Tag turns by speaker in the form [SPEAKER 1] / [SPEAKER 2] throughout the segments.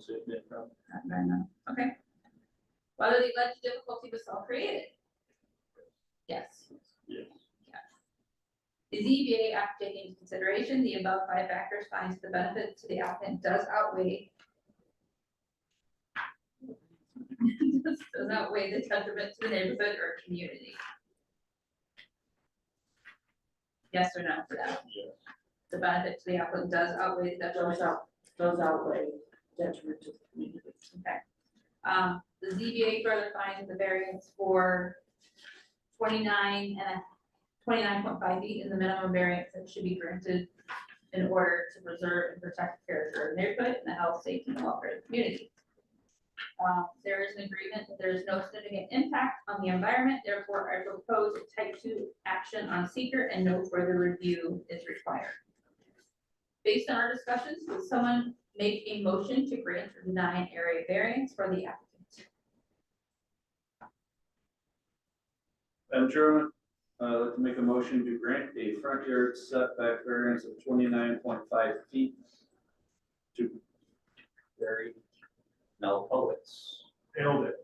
[SPEAKER 1] submit from.
[SPEAKER 2] Not very much. okay. Whether they led to difficulty was self-created? Yes.
[SPEAKER 1] Yes.
[SPEAKER 2] The ZBA after taking into consideration the above five factors finds the benefit to the applicant does outweigh does outweigh the detriment to the neighborhood or community. Yes or no for that?
[SPEAKER 1] Yes.
[SPEAKER 2] The benefit to the applicant does outweigh the detriment.
[SPEAKER 3] Those out, those outweigh detriment to the community.
[SPEAKER 2] Okay. Um, the ZBA further finds the variance for twenty-nine and twenty-nine point five feet is the minimum variance that should be granted in order to preserve and protect the character of the neighborhood and the health, safety, and welfare of the community. Um, there is an agreement that there is no significant impact on the environment, therefore I propose a type-two action on seeker and no further review is required. Based on our discussions, would someone make a motion to grant or deny an area variance for the applicant.
[SPEAKER 1] Madam Chairman, uh, I'd like to make a motion to grant a front yard setback variance of twenty-nine point five feet to Barry Melpowitz. Nailed it.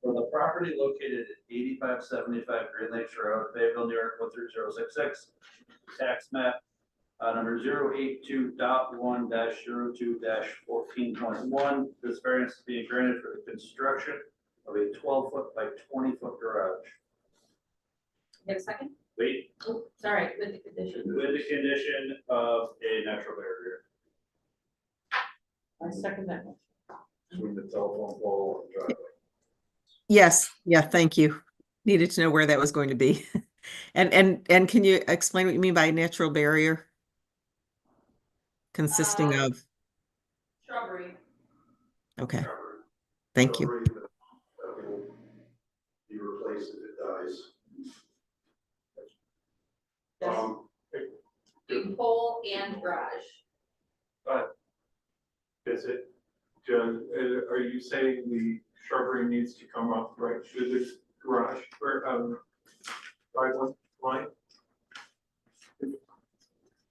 [SPEAKER 1] For the property located at eighty-five seventy-five Green Lakes Road, Fayetteville, New York, one three zero six six, tax map uh, number zero eight two dot one dash zero two dash fourteen point one. This variance is being granted for the construction of a twelve foot by twenty foot garage.
[SPEAKER 2] You have a second?
[SPEAKER 1] Wait,
[SPEAKER 2] Oh, sorry, with the condition.
[SPEAKER 1] with the condition of a natural barrier.
[SPEAKER 3] I second that. motion.
[SPEAKER 4] between the telephone pole and driveway.
[SPEAKER 5] Yes, yeah, thank you. Needed to know where that was going to be. And, and, and can you explain what you mean by natural barrier? Consisting
[SPEAKER 2] Uh,
[SPEAKER 5] of,
[SPEAKER 2] Shrubbery.
[SPEAKER 5] okay, thank you.
[SPEAKER 4] Be replaced if it dies.
[SPEAKER 3] Yes,
[SPEAKER 4] Um,
[SPEAKER 2] Between pole and garage.
[SPEAKER 6] Is it, Jen, uh, are you saying the shrubbery needs to come up right through the garage or, um, driveway line?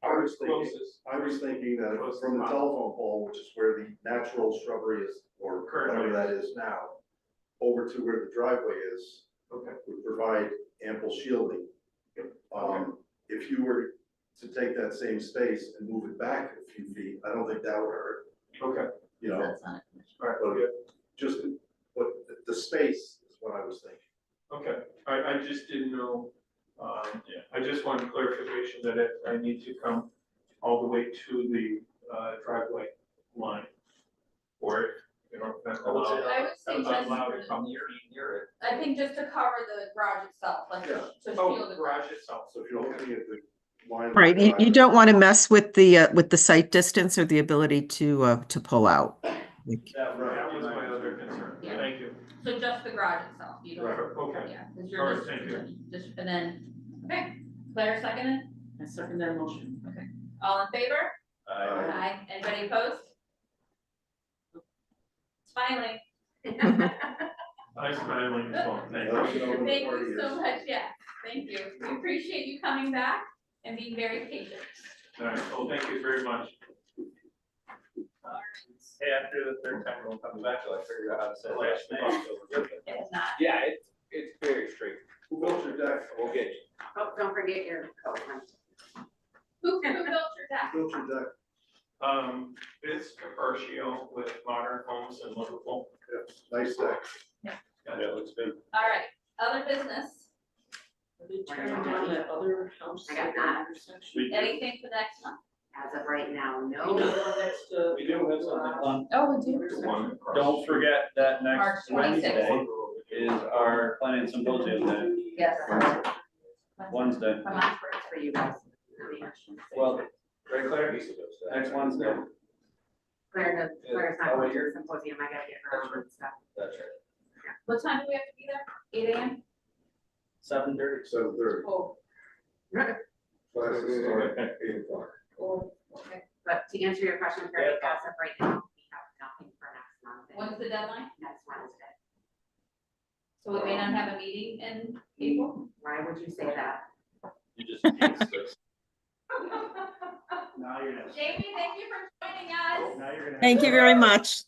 [SPEAKER 4] I was thinking,
[SPEAKER 6] Closest,
[SPEAKER 4] I was thinking that
[SPEAKER 6] Close
[SPEAKER 4] from the
[SPEAKER 6] enough.
[SPEAKER 4] telephone pole, which is where the natural shrubbery is, or whatever
[SPEAKER 6] Currently.
[SPEAKER 4] that is now, over to where the driveway is,
[SPEAKER 6] okay,
[SPEAKER 4] would provide ample shielding. Um, if you were to take that same space and move it back a few feet, I don't think that would hurt,
[SPEAKER 6] okay,
[SPEAKER 4] you know?
[SPEAKER 2] That's not a condition.
[SPEAKER 6] all right,
[SPEAKER 4] Well,
[SPEAKER 6] yeah,
[SPEAKER 4] just what, the- the space is what I was thinking.
[SPEAKER 6] okay. I, I just didn't know, um,
[SPEAKER 1] Yeah.
[SPEAKER 6] I just wanted clarification that it, I need to come all the way to the uh, driveway line. Or, you know, if that's
[SPEAKER 1] I would say-
[SPEAKER 6] allowed.
[SPEAKER 2] I would say
[SPEAKER 6] That's
[SPEAKER 2] just,
[SPEAKER 6] allowed to
[SPEAKER 2] for-
[SPEAKER 6] come near, near it.
[SPEAKER 2] I think just to cover the garage itself, like to
[SPEAKER 4] Yeah.
[SPEAKER 2] to shield
[SPEAKER 6] Oh,
[SPEAKER 2] the garage.
[SPEAKER 6] garage itself,
[SPEAKER 4] So if you're looking at the line. of the
[SPEAKER 5] Right, you, you
[SPEAKER 4] driveway-
[SPEAKER 5] don't want to mess with the, uh, with the site distance or the ability to, uh, to pull out. Like,
[SPEAKER 6] that
[SPEAKER 4] Right.
[SPEAKER 6] was my other concern,
[SPEAKER 2] Yeah.
[SPEAKER 6] thank you.
[SPEAKER 2] So just the garage itself, you don't,
[SPEAKER 6] Okay.
[SPEAKER 2] yeah, because
[SPEAKER 6] All
[SPEAKER 2] you're
[SPEAKER 6] right,
[SPEAKER 2] just,
[SPEAKER 6] thank
[SPEAKER 2] just, and then, okay, Claire seconded,
[SPEAKER 3] I second that motion.
[SPEAKER 2] all in favor?
[SPEAKER 4] Aye.
[SPEAKER 2] Aye, anybody opposed? Finally.
[SPEAKER 6] I'm smiling as well, thank you.
[SPEAKER 4] That should open the
[SPEAKER 2] Thank
[SPEAKER 4] party
[SPEAKER 2] you so
[SPEAKER 4] is-
[SPEAKER 2] much, yeah, thank you. We appreciate you coming back and being very patient.
[SPEAKER 6] All right, well, thank you very much.
[SPEAKER 1] Hey, after the third time, we'll come back, till I figure out how to say last name.
[SPEAKER 2] It's not,
[SPEAKER 7] Yeah, it's, it's very straight.
[SPEAKER 4] Who built your deck?
[SPEAKER 7] We'll get you.
[SPEAKER 3] Oh, don't forget your coat, Mike.
[SPEAKER 2] who, who built your deck?
[SPEAKER 4] Who Built your deck?
[SPEAKER 6] Um, it's Caparcio with Modern Homes in Liverpool.
[SPEAKER 4] Nice deck.
[SPEAKER 1] Yeah, it looks big.
[SPEAKER 2] All right, other business,
[SPEAKER 3] They turned down that other house.
[SPEAKER 8] I got that.
[SPEAKER 3] intersection.
[SPEAKER 1] We do,
[SPEAKER 2] anything for next month?
[SPEAKER 8] As of right now,
[SPEAKER 3] You know,
[SPEAKER 8] no.
[SPEAKER 3] the one next to-
[SPEAKER 1] we do have something on.
[SPEAKER 2] Oh, we
[SPEAKER 6] The one across-
[SPEAKER 1] Don't forget that
[SPEAKER 2] March
[SPEAKER 1] next
[SPEAKER 2] 26th.
[SPEAKER 1] Wednesday is our planning symposium day,
[SPEAKER 8] Yes.
[SPEAKER 1] Wednesday,
[SPEAKER 2] Come
[SPEAKER 8] Much
[SPEAKER 2] on.
[SPEAKER 8] works for you guys. I mean,
[SPEAKER 1] well, right Claire? Next Wednesday,
[SPEAKER 8] Claire knows,
[SPEAKER 7] Yeah.
[SPEAKER 8] Claire's not
[SPEAKER 7] Oh,
[SPEAKER 8] going
[SPEAKER 7] wait,
[SPEAKER 8] to the
[SPEAKER 7] you're-
[SPEAKER 8] symposium, I gotta get her
[SPEAKER 7] That's
[SPEAKER 8] on and stuff.
[SPEAKER 7] That's right.
[SPEAKER 2] What time do we have to be there? Eight AM?
[SPEAKER 1] seven thirty.
[SPEAKER 4] Seven thirty.
[SPEAKER 2] Oh,
[SPEAKER 4] Classes start at eight o'clock.
[SPEAKER 2] oh, okay.
[SPEAKER 8] But to answer your question, Carrie, as of right now, we have nothing for next month. and
[SPEAKER 2] When's the deadline?
[SPEAKER 8] Next Wednesday.
[SPEAKER 2] So we may not have a meeting in April?
[SPEAKER 8] Why would you say that?
[SPEAKER 1] You just. Now
[SPEAKER 2] Jamie, thank you for joining us.
[SPEAKER 1] you're gonna
[SPEAKER 5] Thank you very much.